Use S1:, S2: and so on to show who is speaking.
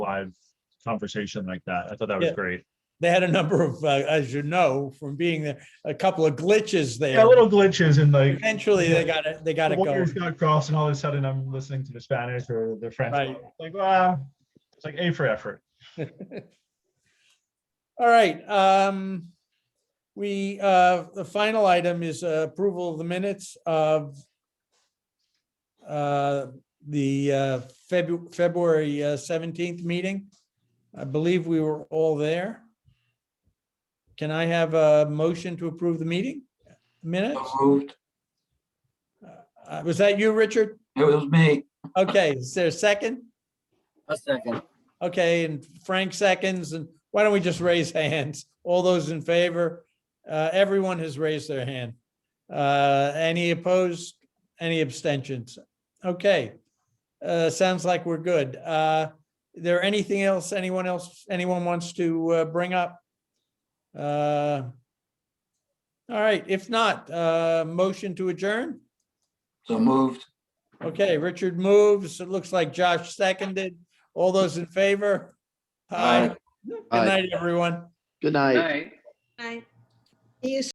S1: live conversation like that. I thought that was
S2: Yeah.
S1: great.
S2: They had a number of, uh, as you know, from being there, a couple of glitches
S1: Yeah,
S2: there.
S1: little glitches and like.
S2: Eventually, they got it, they got
S1: the
S2: it going.
S1: wires got crossed and all of a sudden I'm listening to the Spanish or the French.
S2: Right.
S1: Like, wow, it's like A for effort.
S2: All right, um, we, uh, the final item is uh, approval of the minutes of uh, the uh, Febu- February uh, seventeenth meeting. I believe we were all there. Can I have a motion to approve the meeting minutes?
S3: So Moved.
S2: Uh, Was that you, Richard?
S3: It was me.
S2: Okay, is there a second?
S3: A second.
S2: Okay, and Frank seconds, and why don't we just raise hands? All those in favor? Uh, everyone has raised their hand. Uh, any opposed? Any abstentions? Okay. Uh, sounds like we're good. Uh, there anything else anyone else, anyone wants to uh, bring up? Uh, all right, if not, uh, motion to adjourn?
S3: So moved.
S2: Okay, Richard moves. It looks like Josh seconded. All those in favor? Aye. Good
S4: Aye.
S2: night, everyone.
S4: Good night.
S5: Aye.
S6: See you